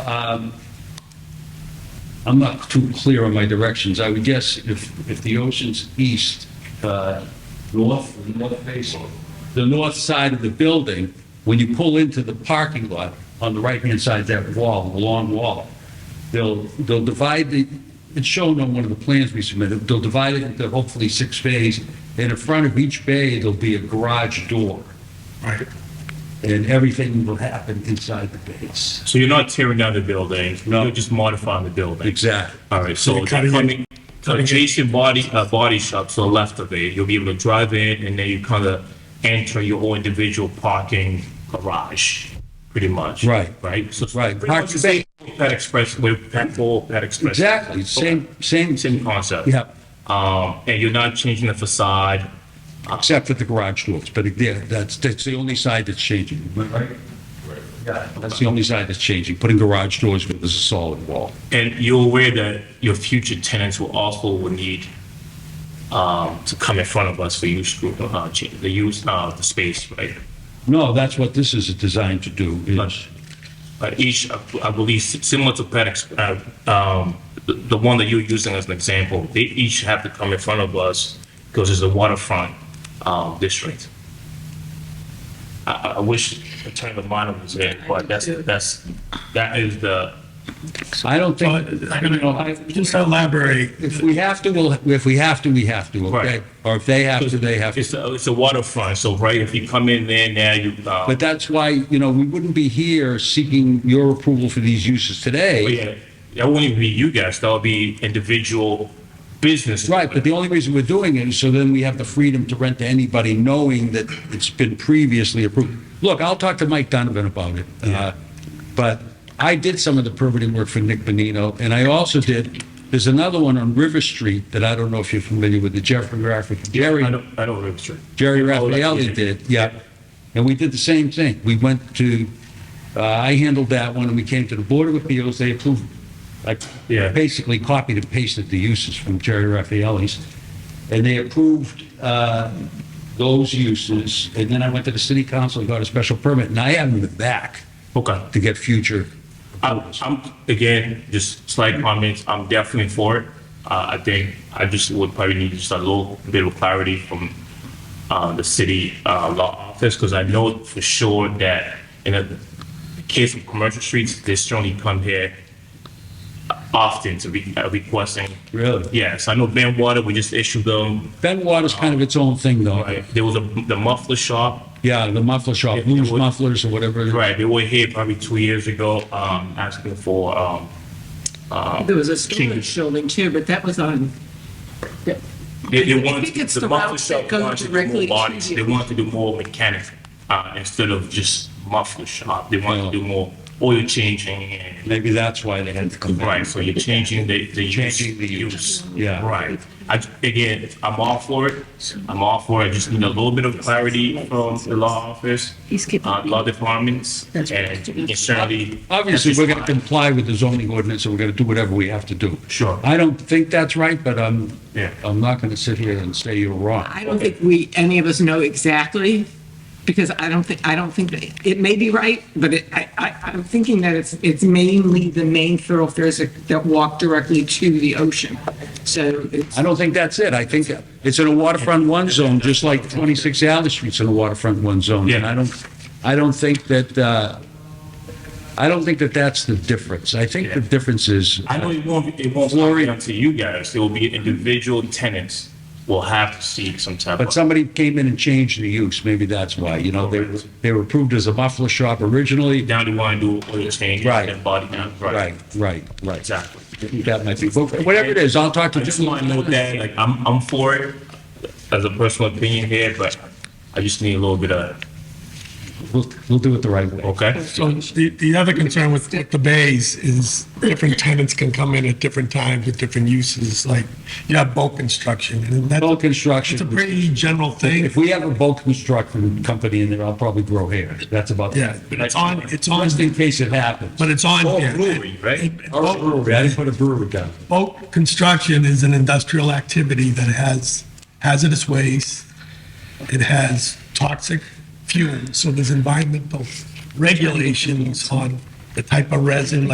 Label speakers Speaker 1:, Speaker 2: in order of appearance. Speaker 1: Um, I'm not too clear on my directions. I would guess if, if the ocean's east, uh, north, the north face, the north side of the building, when you pull into the parking lot, on the right-hand side, that wall, the long wall, they'll, they'll divide the, it's shown on one of the plans we submitted, they'll divide it into hopefully six bays, and in front of each bay, there'll be a garage door,
Speaker 2: Right.
Speaker 1: and everything will happen inside the bays.
Speaker 3: So you're not tearing down the building?
Speaker 1: No.
Speaker 3: You're just modifying the building?
Speaker 1: Exactly.
Speaker 3: All right, so
Speaker 2: You're cutting it-
Speaker 3: coming,
Speaker 2: cutting it-
Speaker 3: adjacent body, uh, body shop to the left of it, you'll be able to drive in and then you kind of enter your own individual parking garage, pretty much.
Speaker 1: Right.
Speaker 3: Right? So it's
Speaker 1: Right.
Speaker 3: Pretty much the same with Pet Express, with Pet Bowl, Pet Express.
Speaker 1: Exactly, same, same,
Speaker 3: Same concept.
Speaker 1: yeah,
Speaker 3: Um, and you're not changing the facade.
Speaker 1: except for the garage doors, but yeah, that's, that's the only side that's changing, am I right? Yeah, that's the only side that's changing, putting garage doors where there's a solid wall.
Speaker 3: And you're aware that your future tenants will also will need um, to come in front of us for use, group, uh, cha- the use, uh, the space, right?
Speaker 1: No, that's what this is designed to do, is,
Speaker 3: But each, I believe, similar to Pet, Ex- uh, um, the the one that you're using as an example, they each have to come in front of us because it's a waterfront um, district. I, I- I wish Attorney Lamont was there, but that's, that's, that is the,
Speaker 1: I don't think,
Speaker 2: But I'm
Speaker 1: you know, I-
Speaker 2: gonna just elaborate.
Speaker 1: if we have to, we'll, if we have to, we have to, okay?
Speaker 3: Right.
Speaker 1: Or if they have to, they have to.
Speaker 3: it's a, it's a waterfront, so right, if you come in there now, you, uh,
Speaker 1: But that's why, you know, we wouldn't be here seeking your approval for these uses
Speaker 3: But
Speaker 1: today.
Speaker 3: yeah, that wouldn't even be you guys, that would be individual business.
Speaker 1: Right, but the only reason we're doing it is so then we have the freedom to rent to anybody, knowing that it's been previously approved. Look, I'll talk to Mike Donovan about it. uh, But I did some of the permitting work for Nick Bonino, and I also did, there's another one on River Street that I don't know if you're familiar with, the Jeffrey Rafferty Dairy.
Speaker 3: I don't, I don't remember.
Speaker 1: Jerry
Speaker 3: Oh, that-
Speaker 1: Raffaelli did, yeah. And we did the same thing. We went to, uh, I handled that one, and we came to the Board of Appeals, they approved, I
Speaker 3: Yeah.
Speaker 1: basically copied and pasted the uses from Jerry Raffaelli's, and they approved uh, those uses, and then I went to the city council and got a special permit, and I haven't been back
Speaker 3: Okay.
Speaker 1: to get future
Speaker 3: I'm,
Speaker 1: approvals.
Speaker 3: I'm, again, just slight comments, I'm definitely for it. Uh, I think I just would probably need just a little bit of clarity from, uh, the city, uh, law office, because I know for sure that in a case of commercial streets, they certainly come here often to be uh, requesting.
Speaker 1: Really?
Speaker 3: Yes, I know Ben Water, we just issued them
Speaker 1: Ben Water's kind of its own thing, though.
Speaker 3: Right. There was a, the muffler shop,
Speaker 1: Yeah, the muffler shop,
Speaker 3: It- it
Speaker 1: Blues
Speaker 3: would-
Speaker 1: Mufflers or whatever. it is.
Speaker 3: right, they were here probably two years ago, um, asking for, um,
Speaker 4: There was a
Speaker 3: Jeez.
Speaker 4: storage building too, but that was on,
Speaker 3: they, they
Speaker 4: I
Speaker 3: wanted,
Speaker 4: think it's
Speaker 3: the
Speaker 4: the
Speaker 3: muffler
Speaker 4: routes that
Speaker 3: shop
Speaker 4: go
Speaker 3: wanted to do
Speaker 4: directly
Speaker 3: more
Speaker 4: to
Speaker 3: bodies,
Speaker 4: you.
Speaker 3: they wanted to do more mechanic, uh, instead of just muffler shop, they wanted
Speaker 1: Oh.
Speaker 3: to do more oil changing and,
Speaker 1: Maybe that's why they had to come back.
Speaker 3: right, so you're changing the, the use.
Speaker 1: Changing the use, yeah.
Speaker 3: Right, I, again, I'm all for it, I'm all for it, I just need a little bit of clarity from the law office,
Speaker 4: He's keeping-
Speaker 3: uh, law departments, and
Speaker 4: That's right.
Speaker 3: certainly.
Speaker 1: Obviously,
Speaker 3: that's
Speaker 1: we're
Speaker 3: just
Speaker 1: going to
Speaker 3: fine.
Speaker 1: comply with the zoning ordinance, and we're going to do whatever we have to do.
Speaker 3: Sure.
Speaker 1: I don't think that's right, but I'm,
Speaker 3: Yeah.
Speaker 1: I'm not going to sit here and say you're wrong.
Speaker 4: I don't think we, any of us know exactly, because I don't think, I don't think, that- it may be right, but it, I, I, I'm thinking that it's, it's mainly the main thoroughfares that that walk directly to the ocean. So it's,
Speaker 1: I don't think that's it. I think it's in a waterfront one zone, just like 26 Alley Street's in a waterfront one zone. And
Speaker 3: Yeah.
Speaker 1: I don't, I don't think that, uh, I don't think that that's the difference. I think the
Speaker 3: Yeah.
Speaker 1: difference is,
Speaker 3: I know it won't, it won't
Speaker 1: Glory.
Speaker 3: be up to you guys. There will be individual tenants will have to seek some type
Speaker 1: But
Speaker 3: of.
Speaker 1: somebody came in and changed the use, maybe that's why, you know, they, were they were approved as a muffler shop originally.
Speaker 3: Now they want to do oil changes
Speaker 1: Right.
Speaker 3: and body count, right?
Speaker 1: Right, right, right.
Speaker 3: Exactly.
Speaker 1: I think That might be, but whatever it is, I'll talk
Speaker 3: I
Speaker 1: to
Speaker 3: just want to note that, like, I'm, I'm for it as a personal opinion here, but I just need a little bit of,
Speaker 1: We'll, we'll do it the right way.
Speaker 3: okay?
Speaker 2: So the, the other concern with with the bays is different tenants can come in at different times with different uses, like you have bulk construction and that's,
Speaker 1: Bulk
Speaker 2: it's a
Speaker 1: construction,
Speaker 2: pretty general thing.
Speaker 1: if we have a bulk construction company in there, I'll probably grow hair. That's about.
Speaker 2: Yeah, but it's on, it's on,
Speaker 1: Just in case it happens.
Speaker 2: but it's on.
Speaker 3: Oh,
Speaker 2: here.
Speaker 3: brewery, right?
Speaker 2: And- and
Speaker 1: Or a
Speaker 2: bulk-
Speaker 1: brewery, I didn't put a brewery down.
Speaker 2: Bulk construction is an industrial activity that has hazardous waste. It has toxic fumes, so there's environmental regulations on the type of resin, like